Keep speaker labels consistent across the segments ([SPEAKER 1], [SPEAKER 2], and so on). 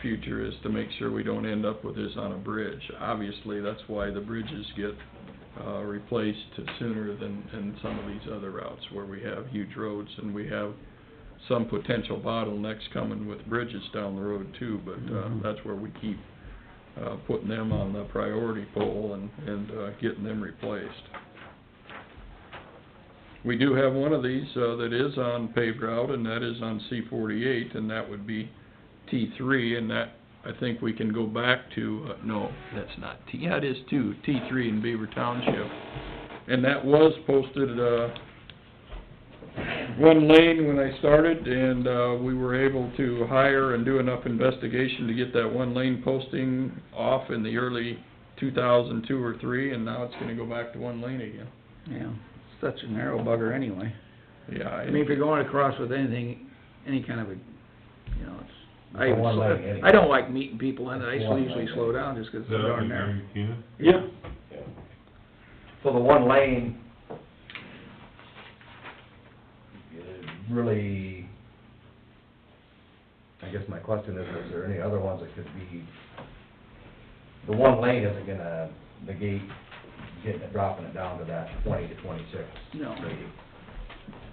[SPEAKER 1] future is to make sure we don't end up with this on a bridge. Obviously, that's why the bridges get, uh, replaced sooner than, than some of these other routes where we have huge roads and we have some potential bottlenecks coming with bridges down the road too, but, uh,
[SPEAKER 2] Mhm.
[SPEAKER 1] that's where we keep, uh, putting them on the priority pole and, and, uh, getting them replaced. We do have one of these, uh, that is on paved route, and that is on C forty-eight, and that would be T three, and that, I think we can go back to, uh, no, that's not T, yeah, it is too, T three in Beaver Township. And that was posted, uh, one lane when I started, and, uh, we were able to hire and do enough investigation to get that one lane posting off in the early two thousand two or three, and now it's gonna go back to one lane again.
[SPEAKER 2] Yeah, such a narrow bugger anyway.
[SPEAKER 1] Yeah,
[SPEAKER 2] I
[SPEAKER 1] I-
[SPEAKER 2] mean, if you're going across with anything, any kind of a, you know, it's, I
[SPEAKER 3] It's a one lane
[SPEAKER 2] even,
[SPEAKER 3] anyway.
[SPEAKER 2] I don't like meeting people and I
[SPEAKER 3] It's one
[SPEAKER 2] usually
[SPEAKER 3] lane.
[SPEAKER 2] slow down just 'cause it's
[SPEAKER 4] Is that what
[SPEAKER 2] darn
[SPEAKER 4] you
[SPEAKER 2] narrow.
[SPEAKER 4] Keenan?
[SPEAKER 1] Yeah.
[SPEAKER 3] So the one lane is really, I guess my question is, is there any other ones that could be, the one lane isn't gonna negate getting it, dropping it down to that twenty to twenty-six.
[SPEAKER 2] No.
[SPEAKER 3] rating.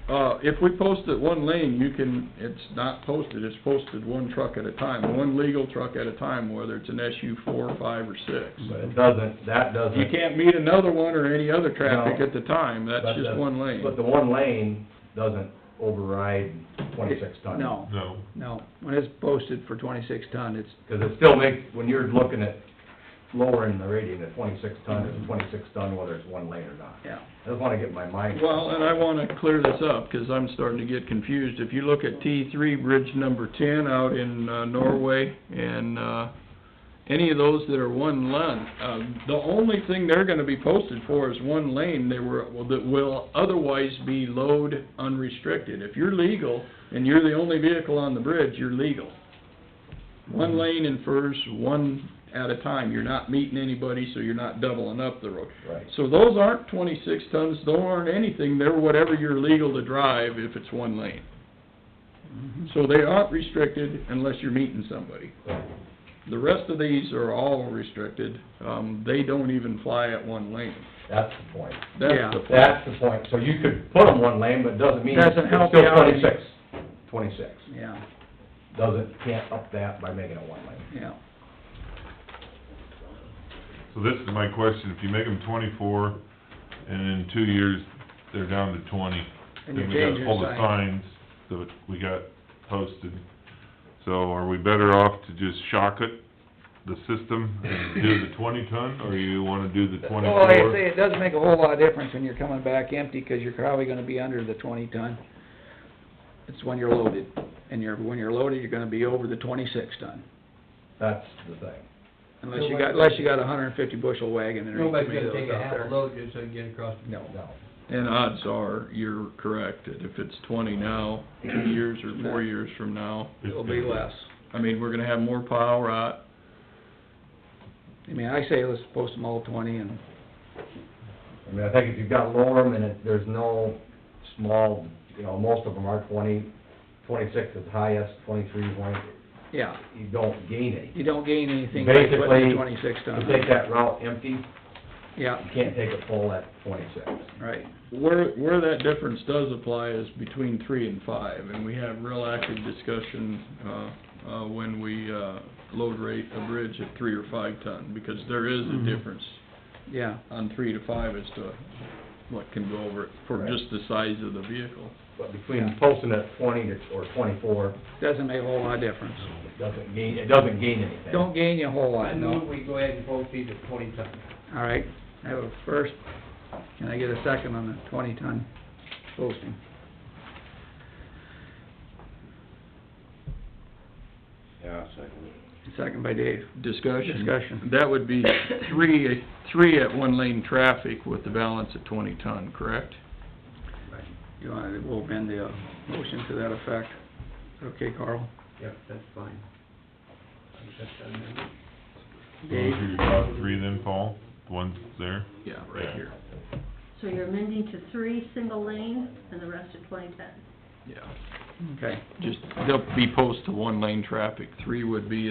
[SPEAKER 1] Uh, if we post it one lane, you can, it's not posted, it's posted one truck at a time, one legal truck at a time, whether it's an SU four, five, or six.
[SPEAKER 3] But it doesn't, that doesn't.
[SPEAKER 1] You can't meet another one or any other traffic at the time, that's
[SPEAKER 3] but
[SPEAKER 1] just
[SPEAKER 3] the-
[SPEAKER 1] one lane.
[SPEAKER 3] But the one lane doesn't override twenty-six ton.
[SPEAKER 2] No,
[SPEAKER 4] No.
[SPEAKER 2] no, when it's posted for twenty-six ton, it's,
[SPEAKER 3] Because it still makes, when you're looking at lowering the rating to twenty-six ton, it's twenty-six ton whether it's one lane or not.
[SPEAKER 2] yeah,
[SPEAKER 3] I just wanna get my mind.
[SPEAKER 1] Well, uh, and I wanna clear this up, 'cause I'm starting to get confused. If you look at T three, bridge number ten out in uh, Norway, and, uh, any of those that are one lane, uh, the only thing they're gonna be posted for is one lane, they were, well, that will otherwise be load unrestricted. If you're legal, and you're the only vehicle on the bridge, you're legal. One lane infers one at a time, you're not meeting anybody, so you're not doubling up the road.
[SPEAKER 3] Right.
[SPEAKER 1] So those aren't twenty-six tons, those aren't anything, they're whatever you're legal to drive if it's one lane.
[SPEAKER 2] Mm-hmm.
[SPEAKER 1] So they aren't restricted unless you're meeting somebody. The rest of these are all restricted, um, they don't even fly at one lane.
[SPEAKER 3] That's the point.
[SPEAKER 1] That's
[SPEAKER 2] Yeah.
[SPEAKER 1] the point.
[SPEAKER 3] That's the point. So you could put them one lane, but it doesn't mean.
[SPEAKER 2] Doesn't
[SPEAKER 3] it's
[SPEAKER 2] help
[SPEAKER 3] still
[SPEAKER 2] you out.
[SPEAKER 3] Twenty-six. Twenty-six.
[SPEAKER 2] yeah,
[SPEAKER 3] Doesn't, can't up that by making it one lane.
[SPEAKER 2] yeah.
[SPEAKER 4] So this is my question, if you make them twenty-four, and in two years, they're down to twenty,
[SPEAKER 2] And you
[SPEAKER 4] then we
[SPEAKER 2] change
[SPEAKER 4] got
[SPEAKER 2] your
[SPEAKER 4] all the
[SPEAKER 2] sign.
[SPEAKER 4] signs that we got posted. So are we better off to just shock it, the system, and do the twenty ton, or you wanna do the
[SPEAKER 2] Well, like Oh, I say,
[SPEAKER 4] twenty-four?
[SPEAKER 2] it does make a whole lot of difference when you're coming back empty, 'cause you're probably gonna be under the twenty ton. It's when you're loaded, and you're, when you're loaded, you're gonna be over the twenty-six ton,
[SPEAKER 3] That's the thing.
[SPEAKER 2] unless you got, unless you got a hundred and fifty bushel wagon and
[SPEAKER 5] Nobody's gonna
[SPEAKER 2] tomatoes
[SPEAKER 5] take a
[SPEAKER 2] out
[SPEAKER 5] half a
[SPEAKER 2] there.
[SPEAKER 5] load just to get across the
[SPEAKER 2] No.
[SPEAKER 3] No.
[SPEAKER 1] And odds are, you're correct, that if it's twenty now, two years or four years from now,
[SPEAKER 2] It'll be less.
[SPEAKER 1] I mean, we're gonna have more uh, pile rot,
[SPEAKER 2] I mean, I say let's post them all twenty and,
[SPEAKER 3] I mean, I think if you've got Lorem and it, there's no small, you know, most of them are twenty, twenty-six is highest, twenty-three is one,
[SPEAKER 2] yeah,
[SPEAKER 3] you don't gain any.
[SPEAKER 2] you don't gain anything by putting
[SPEAKER 3] Basically,
[SPEAKER 2] the
[SPEAKER 3] you
[SPEAKER 2] twenty-six ton.
[SPEAKER 3] take that route empty, you
[SPEAKER 2] Yeah,
[SPEAKER 3] can't take it full at twenty-six.
[SPEAKER 2] right,
[SPEAKER 1] Where, where that difference does apply is between three and five, and we have real active discussion, uh, uh, when we, uh, load rate a bridge at three or five ton, because there is a
[SPEAKER 2] Mhm.
[SPEAKER 1] difference
[SPEAKER 2] yeah,
[SPEAKER 1] on three to five as to what can go over it for
[SPEAKER 3] Right.
[SPEAKER 1] just the size of the vehicle.
[SPEAKER 3] But
[SPEAKER 2] Yeah.
[SPEAKER 3] between posting at twenty to, or twenty-four,
[SPEAKER 2] doesn't make a whole lot of difference.
[SPEAKER 3] it doesn't gain, it doesn't gain anything.
[SPEAKER 2] Don't gain you a whole
[SPEAKER 5] I
[SPEAKER 2] lot, no.
[SPEAKER 5] move we go ahead and vote these at twenty tons.
[SPEAKER 2] All right, I have a first, can I get a second on the twenty ton posting?
[SPEAKER 6] Yeah, second.
[SPEAKER 2] Second by Dave.
[SPEAKER 1] Discussion.
[SPEAKER 2] Discussion.
[SPEAKER 1] That would be three, three at one lane traffic with the balance at twenty ton, correct?
[SPEAKER 2] You want, we'll amend the uh, motion to that effect. Okay, Carl?
[SPEAKER 5] Yep, that's fine. I think that's done now.
[SPEAKER 2] Dave?
[SPEAKER 4] You're about three then, Paul, the ones there?
[SPEAKER 1] Yeah, right here,
[SPEAKER 7] So you're amending to three single lane and the rest of twenty-ten?
[SPEAKER 1] yeah.
[SPEAKER 2] Okay.
[SPEAKER 1] Just, they'll be post to one lane traffic, three would be